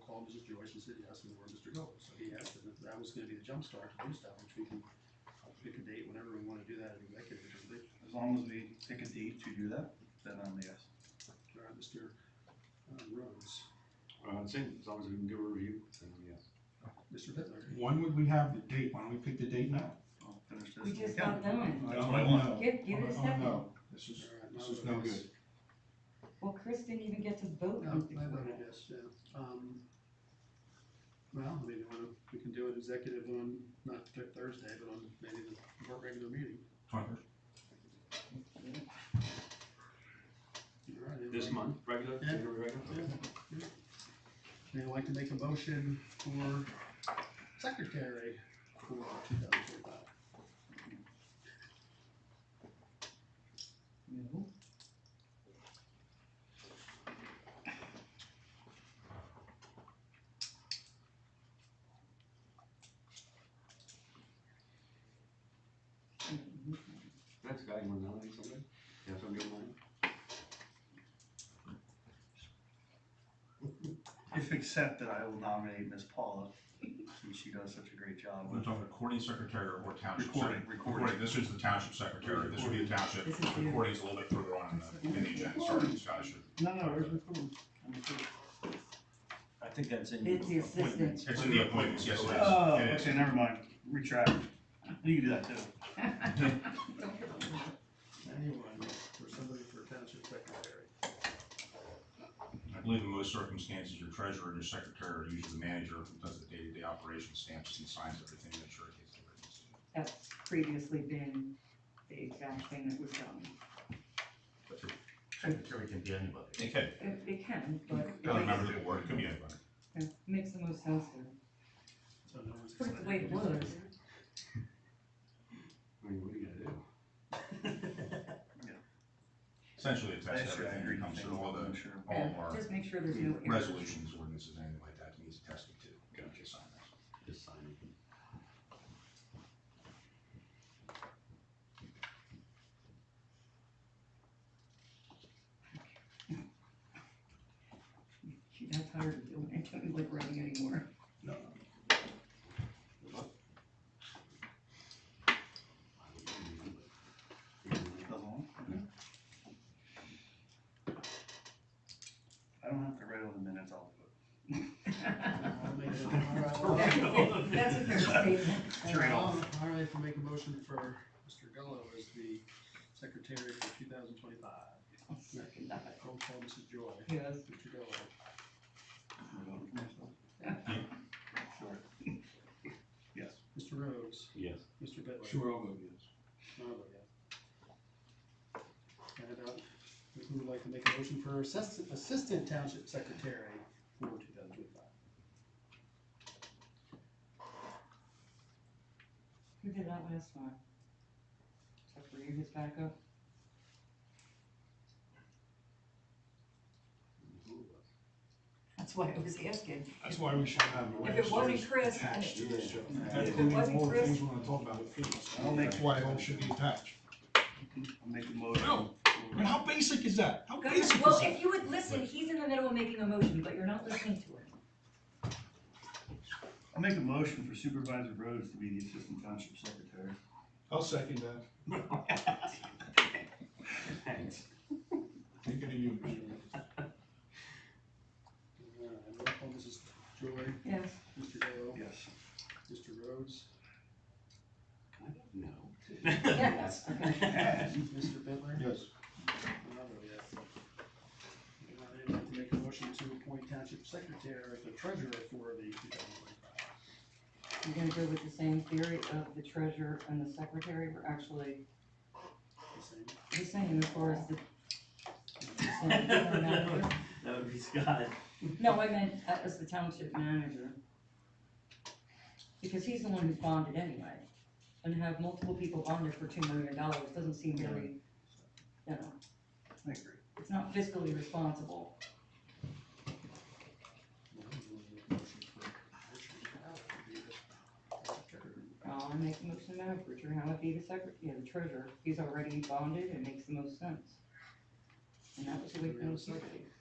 called Mr. Joyce and said, yes, we were Mr. Gold. So he asked if that was gonna be the jumpstart to do stuff, which we can pick a date whenever we wanna do that in executive. which is- As long as we pick a date to do that, then I'm yes. All right, Mr. uh, Rhodes, Uh, same, as long as we can give a review, then I'm yes. Mr. Bitler. When would we have the date? Why don't we pick the date now? I'll finish this. We when I just can. got done. That's what I want. No. Give, give it a Oh, second. no. This is, All right, this Uh, my is no vote good. is- Well, Chris didn't even get to vote. No, on I voted it. yes, yeah. Um, Well, I mean, you wanna- we can do an executive on, not th- Thursday, but on maybe the work regular meeting. All right, anybody- This month, regular, Yeah. January regular? Yeah, yeah. And I'd like to make a motion for secretary for two thousand twenty-five. No. That's guy, you wanna nominate somebody? You have somebody in mind? If accepted, I will nominate Ms. Paula, since she does such a great job We're with talking recording secretary or township? recording, secretary? recording. This is the township secretary, this would be the township, This is you. recording's a little bit further on in the, in the agenda, sorry, Scott, I should. No, no, it's recording. I'm recording. I think that's in. It's the appointments. assistant. It's in the appointments, yes, Oh, it is, it okay, is. never mind, retract. You can do that too. Anyone for somebody for township secretary. I believe in most circumstances, your treasurer and your secretary are usually the manager who does the day-to-day operation stamps and signs everything that your case is written. That's previously been the exact thing that was done. But the Secretary can be anybody. It could, It, it can, but I don't remember the word, it could be anybody. it makes the most sense there. So no one's Put it excited. the way it was. I mean, what do you gotta do? Essentially, it That's tests your everything green that comes thing. through, all the, I'm sure. all of our Just make sure there's no errors. resolutions, ordinances, anything like that, needs testing too. Gotcha. Sign that. Just sign it. She's not tired of doing it, don't like running anymore. I would do it, but- The long? I don't have to write all the minutes, I'll do it. I'll make a- Well, That's a All fair- that's a fair statement. right, I'll- all right, I'll make a motion for Mr. Gallo as the secretary for two thousand twenty-five. I'll second that. Roll call, Mrs. Joy. Yes. Mr. Gallo. I'm voting for myself. Sure. Yes. Mr. Rhodes. Yes. Mr. Bitler. I'll vote yes. Oh, yeah. And about, who would like to make a motion for assistant, assistant township secretary for two thousand twenty-five? Who did that last time? Except for you, his backup? That's why I was asking. That's why we should have. the If it last wasn't year's Chris, then Attached to it- this job. If That's it one of the wasn't more Chris- things we wanna talk about with Phyllis. I'll make- That's why it all should be attached. I'll make a motion. No. I mean, how basic is that? How Go basic is ahead. that? Well, if you would listen, he's in the middle of making a motion, but you're not listening to him. I'll make a motion for Supervisor Rhodes to be the Assistant Township Secretary. I'll second that. Thanks. Thinking of you, Mr. Rhodes. Uh, roll call, Mrs. Joy, Yes. Mr. Gallo, Yes. Mr. Rhodes, Kind of, no. Yes. Mr. Bitler. Yes. And I'll vote yes. And I'd like to make a motion to appoint township secretary, the treasurer for the two thousand twenty-five. You're gonna go with the same theory of the treasurer and the secretary were actually The same. the same as far as the. the same general manager. That would be Scott. No, I meant uh, as the township manager. Because he's the one who's bonded anyway. And to have multiple people bonded for two million dollars doesn't seem really, you know, I agree. it's not fiscally responsible. Well, we'll do a motion for Richard Gallo to be the secretary. I'll Uh, make a motion now, if Richard Howard be the secretary, yeah, the treasurer, he's already bonded, it makes the most sense. And that was the way it was. Second.